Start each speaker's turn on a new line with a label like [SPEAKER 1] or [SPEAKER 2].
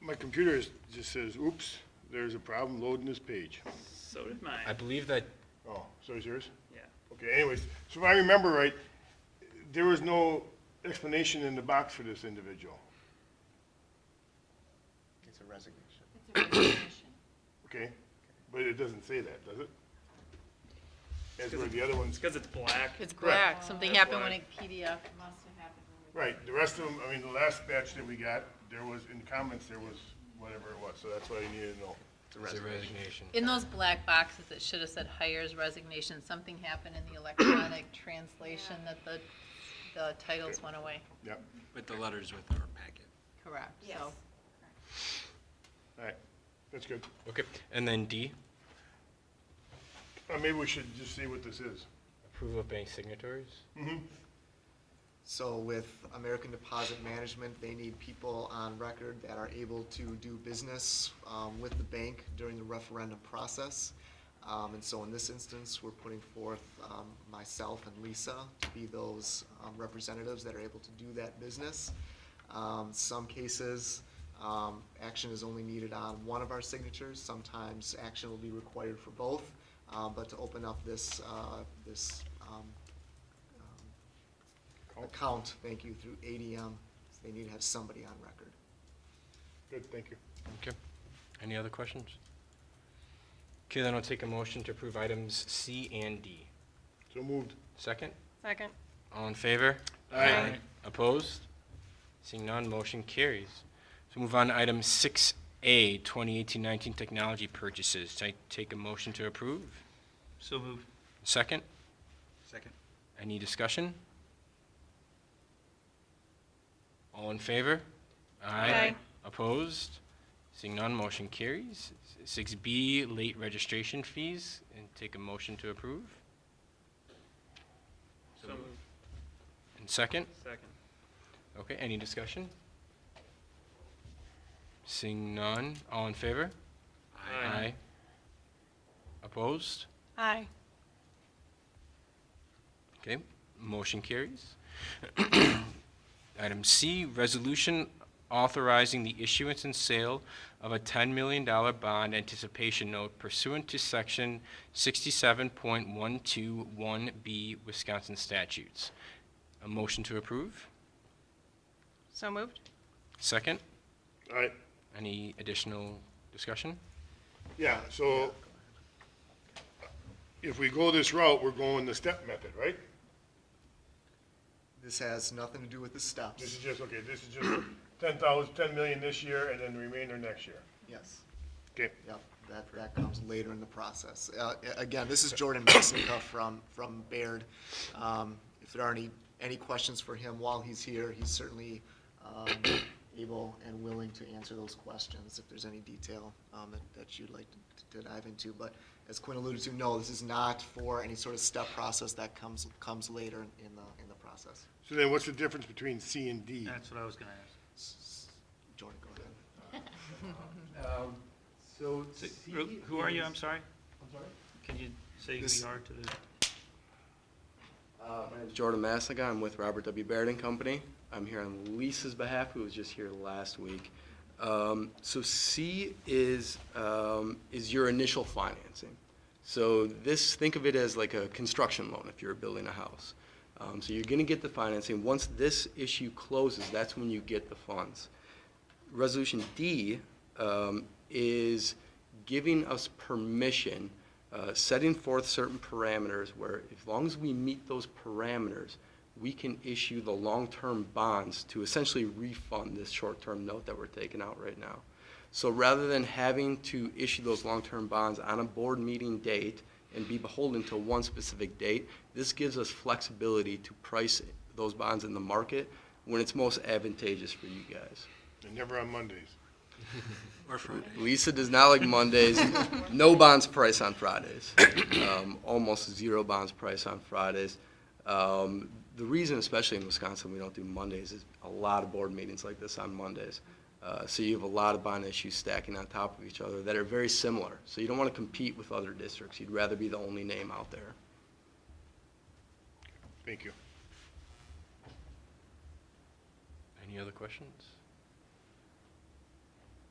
[SPEAKER 1] My computer is, just says, oops, there's a problem loading this page.
[SPEAKER 2] So did mine.
[SPEAKER 3] I believe that,
[SPEAKER 1] Oh, so is yours?
[SPEAKER 2] yeah.
[SPEAKER 1] Okay, anyways, so if I remember right, there was no explanation in the box for this individual,
[SPEAKER 4] It's a resignation.
[SPEAKER 5] It's a resignation.
[SPEAKER 1] okay? But it doesn't say that, does it? That's where the other
[SPEAKER 2] It's
[SPEAKER 1] ones,
[SPEAKER 2] because it's black.
[SPEAKER 6] It's
[SPEAKER 1] Correct.
[SPEAKER 6] black, something
[SPEAKER 2] That's
[SPEAKER 6] happened when
[SPEAKER 2] why.
[SPEAKER 6] it PDF.
[SPEAKER 5] It must have happened when we.
[SPEAKER 1] right, the rest of them, I mean, the last batch that we got, there was, in comments, there was whatever it was, so that's what I needed to know.
[SPEAKER 3] it's a resignation.
[SPEAKER 6] In those black boxes, it should have said hires resignation, something happened in the electronic translation that the, the titles went away.
[SPEAKER 1] Yep,
[SPEAKER 3] But the letters with our packet.
[SPEAKER 6] Correct, so.
[SPEAKER 5] Yes.
[SPEAKER 1] all right, that's good.
[SPEAKER 3] Okay, and then D,
[SPEAKER 1] Uh, maybe we should just see what this is.
[SPEAKER 3] approval of bank signatories?
[SPEAKER 4] So with American Deposit Management, they need people on record that are able to do business um, with the bank during the referendum process. Um, And so in this instance, we're putting forth um, myself and Lisa to be those um, representatives that are able to do that business. Um, Some cases, um, action is only needed on one of our signatures. Sometimes action will be required for both. Uh, But to open up this, uh, this um, um, account, thank you, through ADM. They need to have somebody on record.
[SPEAKER 1] Good, thank you.
[SPEAKER 3] Okay, any other questions? Okay, then I'll take a motion to approve items C and D.
[SPEAKER 1] So moved.
[SPEAKER 3] Second,
[SPEAKER 6] Second.
[SPEAKER 3] all in favor?
[SPEAKER 1] Aye.
[SPEAKER 3] Opposed? Seeing none, motion carries. So move on to item six A, 2018-19 technology purchases. Ta- Take a motion to approve.
[SPEAKER 2] So moved.
[SPEAKER 3] Second,
[SPEAKER 2] Second.
[SPEAKER 3] any discussion? All in favor?
[SPEAKER 6] Aye.
[SPEAKER 3] Opposed? Seeing none, motion carries. Six B, late registration fees, and take a motion to approve.
[SPEAKER 2] So moved.
[SPEAKER 3] And second,
[SPEAKER 2] Second.
[SPEAKER 3] okay, any discussion? Seeing none, all in favor? Opposed?
[SPEAKER 6] Aye.
[SPEAKER 3] Okay, motion carries. Item C, resolution authorizing the issuance and sale of a $10 million bond anticipation note pursuant to Section 67.121B Wisconsin statutes. A motion to approve?
[SPEAKER 6] So moved?
[SPEAKER 3] Second?
[SPEAKER 1] All right,
[SPEAKER 3] Any additional discussion?
[SPEAKER 1] yeah, so if we go this route, we're going the step method, right?
[SPEAKER 4] This has nothing to do with the
[SPEAKER 1] This is
[SPEAKER 4] steps.
[SPEAKER 1] just, okay, this is just ten thousand, ten million this year and then the remainder next year.
[SPEAKER 4] Yes.
[SPEAKER 1] Okay.
[SPEAKER 4] Yep, that, that comes later in the process. Uh, a- Again, this is Jordan Messinka from, from Baird. Um, If there are any, any questions for him while he's here, he's certainly um, able and willing to answer those questions if there's any detail um, that- that you'd like to- to dive into. But as Quinn alluded to, no, this is not for any sort of step process that comes, comes later in in the, in the process.
[SPEAKER 1] So then what's the difference between C and D?
[SPEAKER 2] Uh,
[SPEAKER 7] That's what I was gonna ask.
[SPEAKER 4] Jordan, go ahead.
[SPEAKER 7] Um, So C
[SPEAKER 2] Who- Who are you?
[SPEAKER 7] is-
[SPEAKER 2] I'm sorry.
[SPEAKER 7] I'm sorry?
[SPEAKER 2] Can you say who
[SPEAKER 7] This-
[SPEAKER 2] you are to the?
[SPEAKER 8] Uh, My name's Jordan Massica. I'm with Robert W. Baird and Company. I'm here on Lisa's behalf, who was just here last week. Um, So C is, um, is your initial financing. So this, think of it as like a construction loan if you're building a house. Um, So you're going to get the financing. Once this issue closes, that's when you get the funds. Resolution D um, is giving us permission, uh, setting forth certain parameters where as long as we meet those parameters, we can issue the long-term bonds to essentially refund this short-term note that we're taking out right now. So rather than having to issue those long-term bonds on a board meeting date and be beholden to one specific date, this gives us flexibility to price those bonds in the market when it's most advantageous for you guys.
[SPEAKER 1] And never on Mondays.
[SPEAKER 3] Or Friday.
[SPEAKER 8] Lisa does not like Mondays. No bonds price on Fridays. Um, almost zero bonds price on Fridays. Um, the reason, especially in Wisconsin, we don't do Mondays is a lot of board meetings like this on Mondays. Uh, so you have a lot of bond issues stacking on top of each other that are very similar. So you don't want to compete with other districts. You'd rather be the only name out there.
[SPEAKER 1] Thank you.
[SPEAKER 3] Any other questions?